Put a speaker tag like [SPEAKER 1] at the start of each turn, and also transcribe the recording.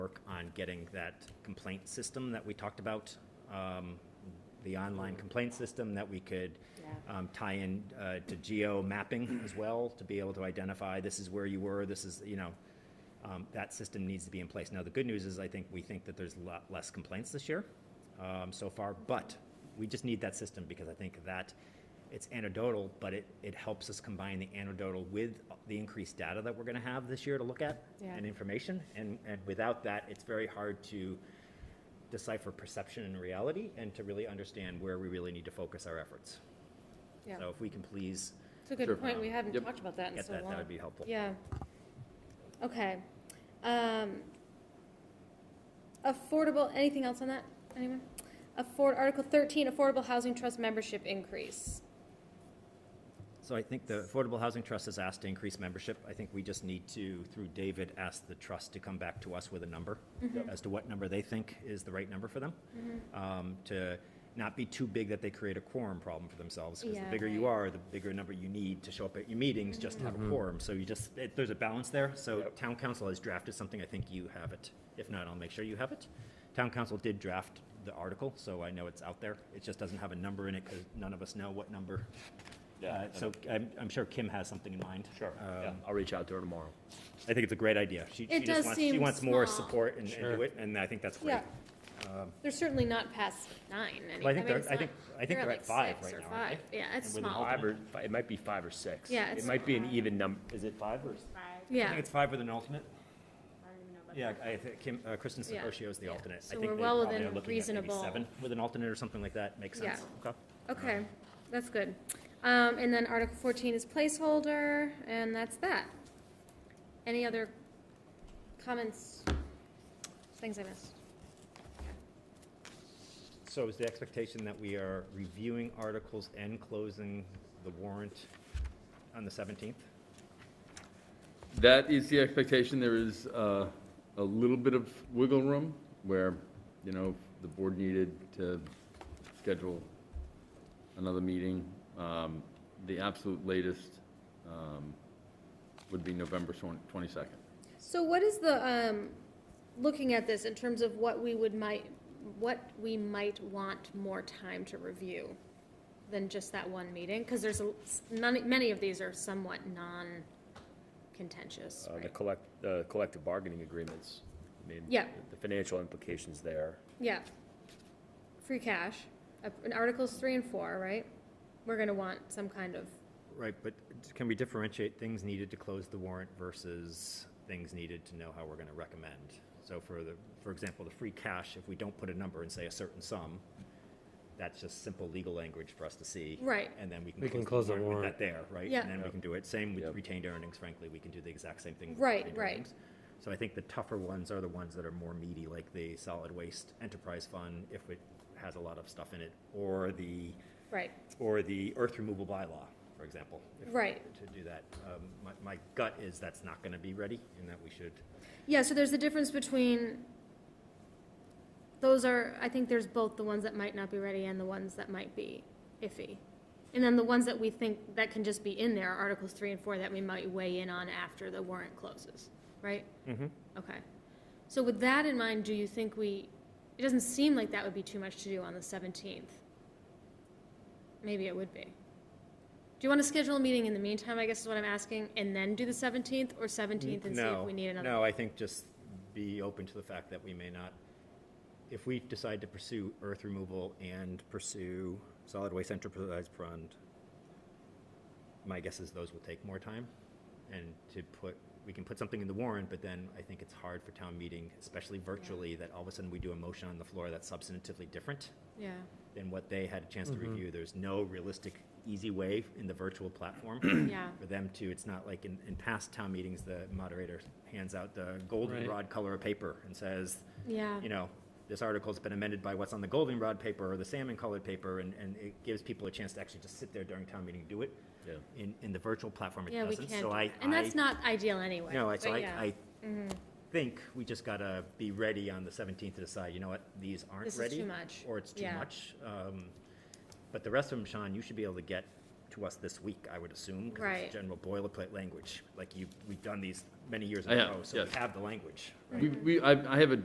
[SPEAKER 1] on getting that complaint system that we talked about, um, the online complaint system that we could
[SPEAKER 2] Yeah.
[SPEAKER 1] um, tie in uh, to geo mapping as well, to be able to identify, this is where you were, this is, you know, um, that system needs to be in place. Now, the good news is, I think, we think that there's a lot less complaints this year um, so far, but we just need that system because I think that it's anecdotal, but it, it helps us combine the anecdotal with the increased data that we're going to have this year to look at
[SPEAKER 2] Yeah.
[SPEAKER 1] and information. And, and without that, it's very hard to decipher perception and reality and to really understand where we really need to focus our efforts.
[SPEAKER 2] Yeah,
[SPEAKER 1] So if we can please
[SPEAKER 2] it's a
[SPEAKER 3] Sure.
[SPEAKER 2] good point, we haven't
[SPEAKER 3] Yep.
[SPEAKER 2] talked about that in
[SPEAKER 1] get
[SPEAKER 2] so
[SPEAKER 1] that, that
[SPEAKER 2] long.
[SPEAKER 1] would be helpful.
[SPEAKER 2] Yeah. Okay. Um, affordable, anything else on that? Anyone? Afford, Article thirteen, Affordable Housing Trust membership increase.
[SPEAKER 1] So I think the Affordable Housing Trust has asked to increase membership. I think we just need to, through David, ask the trust to come back to us with a number
[SPEAKER 2] Mm-hmm.
[SPEAKER 1] as to what number they think is the right number for them. Um, To not be too big that they create a quorum problem for themselves. Because the
[SPEAKER 2] Yeah,
[SPEAKER 1] bigger you
[SPEAKER 2] right.
[SPEAKER 1] are, the bigger number you need to show up at your meetings just to have a quorum. So you just, it- there's a balance there. So
[SPEAKER 3] Yep.
[SPEAKER 1] town council has drafted something. I think you have it. If not, I'll make sure you have it. Town council did draft the article, so I know it's out there. It just doesn't have a number in it because none of us know what number
[SPEAKER 3] Yeah,
[SPEAKER 1] uh,
[SPEAKER 3] and-
[SPEAKER 1] So I'm, I'm sure Kim has something in mind.
[SPEAKER 3] Sure, yeah,
[SPEAKER 1] Um,
[SPEAKER 3] I'll reach out to her tomorrow.
[SPEAKER 1] I think it's a great idea. She, she
[SPEAKER 2] It does
[SPEAKER 1] just wants, she
[SPEAKER 2] seem
[SPEAKER 1] wants more
[SPEAKER 2] small.
[SPEAKER 1] support and and do
[SPEAKER 3] Sure.
[SPEAKER 1] it, and I think that's great. Um,
[SPEAKER 2] Yeah. They're certainly not past nine. any-
[SPEAKER 1] Well, I think
[SPEAKER 2] mean,
[SPEAKER 1] they're-
[SPEAKER 2] it's
[SPEAKER 1] I think-
[SPEAKER 2] not-
[SPEAKER 1] I think they're at
[SPEAKER 2] like
[SPEAKER 1] five
[SPEAKER 2] six
[SPEAKER 1] right
[SPEAKER 2] or
[SPEAKER 1] now, aren't
[SPEAKER 2] five. Yeah, it's
[SPEAKER 1] And with an
[SPEAKER 2] small.
[SPEAKER 1] alt-
[SPEAKER 3] Five or, fi- it might be five or six.
[SPEAKER 2] Yeah, it's-
[SPEAKER 3] It might be an even number, is it five or?
[SPEAKER 1] I think
[SPEAKER 2] Yeah,
[SPEAKER 1] it's five with an alternate.
[SPEAKER 4] I don't even know about
[SPEAKER 1] Yeah, I think Kim, uh, Kristen
[SPEAKER 2] Yeah.
[SPEAKER 1] Secoshio is the
[SPEAKER 2] Yeah.
[SPEAKER 1] alternate. I
[SPEAKER 2] So
[SPEAKER 1] think
[SPEAKER 2] we're
[SPEAKER 1] they
[SPEAKER 2] well
[SPEAKER 1] probably
[SPEAKER 2] within
[SPEAKER 1] are looking at maybe
[SPEAKER 2] reasonable-
[SPEAKER 1] Seven with an alternate or something like that, makes sense. Okay.
[SPEAKER 2] okay, that's good. Um, and then Article fourteen is placeholder, and that's that. Any other comments? Things I missed?
[SPEAKER 1] So is the expectation that we are reviewing articles and closing the warrant on the 17th?
[SPEAKER 5] That is the expectation. There is uh, a little bit of wiggle room where, you know, the board needed to schedule another meeting. Um, The absolute latest um, would be November 22nd.
[SPEAKER 2] So what is the, um, looking at this in terms of what we would might, what we might want more time to review than just that one meeting? Because there's, a- many, many of these are somewhat non-contentious,
[SPEAKER 3] Uh, The
[SPEAKER 2] right?
[SPEAKER 3] collect, the collective bargaining agreements. I mean,
[SPEAKER 2] Yeah.
[SPEAKER 3] The financial implications there.
[SPEAKER 2] Yeah. Free cash, uh, in Articles three and four, right? We're gonna want some kind of,
[SPEAKER 1] Right, but can we differentiate things needed to close the warrant versus things needed to know how we're gonna recommend? So for the, for example, the free cash, if we don't put a number and say a certain sum, that's just simple legal language for us to see.
[SPEAKER 2] Right.
[SPEAKER 1] And then we
[SPEAKER 6] We
[SPEAKER 1] can close the warrant with that there, right?
[SPEAKER 2] Yeah.
[SPEAKER 1] And then we can do it. Same with
[SPEAKER 3] Yep.
[SPEAKER 1] retained earnings, frankly, we can do the exact same thing. with
[SPEAKER 2] Right,
[SPEAKER 1] retained
[SPEAKER 2] right.
[SPEAKER 1] earnings. So I think the tougher ones are the ones that are more meaty, like the solid waste enterprise fund, if it has a lot of stuff in it, or the
[SPEAKER 2] right,
[SPEAKER 1] or the earth removal bylaw, for example. if-
[SPEAKER 2] Right.
[SPEAKER 1] To do that. Um, My, my gut is that's not going to be ready and that we should,
[SPEAKER 2] Yeah, so there's a difference between, those are, I think there's both the ones that might not be ready and the ones that might be iffy. And then the ones that we think that can just be in there, are Articles three and four, that we might weigh in on after the warrant closes, right? Mm-hmm. Okay. So with that in mind, do you think we, it doesn't seem like that would be too much to do on the seventeenth. Maybe it would be. Do you want to schedule a meeting in the meantime, I guess is what I'm asking, and then do the seventeenth, or seventeenth and see if
[SPEAKER 1] no.
[SPEAKER 2] we need another?
[SPEAKER 1] No, I think just be open to the fact that we may not, if we decide to pursue earth removal and pursue solid waste enterprise fund, my guess is those will take more time. And to put, we can put something in the warrant, but then I think it's hard for town meeting, especially virtually, that all of a sudden we do a motion on the floor that's substantively different.
[SPEAKER 2] Yeah,
[SPEAKER 1] than what they had a chance to review. There's no realistic, easy way in the virtual platform
[SPEAKER 2] yeah,
[SPEAKER 1] for them to, it's not like in, in past town meetings, the moderator hands out the goldenrod color of paper and says,
[SPEAKER 2] yeah.
[SPEAKER 1] you know, this article's been amended by what's on the goldenrod paper or the salmon colored paper, and, and it gives people a chance to actually just sit there during town meeting and do it.
[SPEAKER 3] Yeah.
[SPEAKER 1] In, in the virtual platform, it
[SPEAKER 2] Yeah, we
[SPEAKER 1] doesn't.
[SPEAKER 2] can't, do
[SPEAKER 1] So I,
[SPEAKER 2] that. and that's
[SPEAKER 1] I-
[SPEAKER 2] not ideal anyway.
[SPEAKER 1] no, I- so
[SPEAKER 2] but
[SPEAKER 1] I,
[SPEAKER 2] yeah. Mm-hmm.
[SPEAKER 1] I think we just gotta be ready on the seventeenth to decide, you know what, these aren't
[SPEAKER 2] This is
[SPEAKER 1] ready.
[SPEAKER 2] too much.
[SPEAKER 1] Or it's too
[SPEAKER 2] Yeah.
[SPEAKER 1] much. Um, But the rest of them, Sean, you should be able to get to us this week, I would assume. 'cause it's
[SPEAKER 2] Right.
[SPEAKER 1] General boilerplate language, like you, we've done these many years
[SPEAKER 5] I
[SPEAKER 1] ago,
[SPEAKER 5] have,
[SPEAKER 1] so we
[SPEAKER 5] yes.
[SPEAKER 1] have the language.
[SPEAKER 5] We, we, I I have a